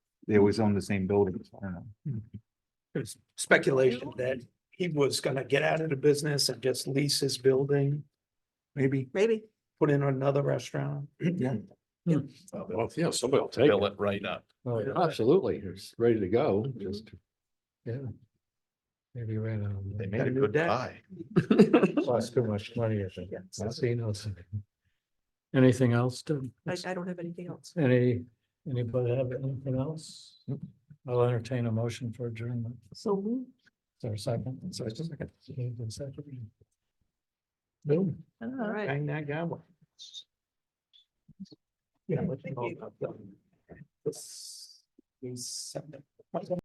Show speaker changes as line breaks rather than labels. they always own the same buildings. I don't know.
There's speculation that he was gonna get out of the business and just lease his building,
Maybe.
Maybe.
put in another restaurant.
Yeah.
Well, yeah, somebody will take
Fill
it.
it right up.
Oh, yeah, absolutely. It's ready to go, just. Yeah. Maybe ran out. of
They
money.
made a
do
good
that.
buy.
Cost too much money, I think.
Yes.
I've seen those. Anything else to,
I, I don't have anything else.
any, anybody have anything else? I'll entertain a motion for adjournment.
So moved.
Is there a second?
So it's just like a-
Moved and seconded. Boom.
All right.
Hang that guy. up. Yeah. let's go. This- these seven-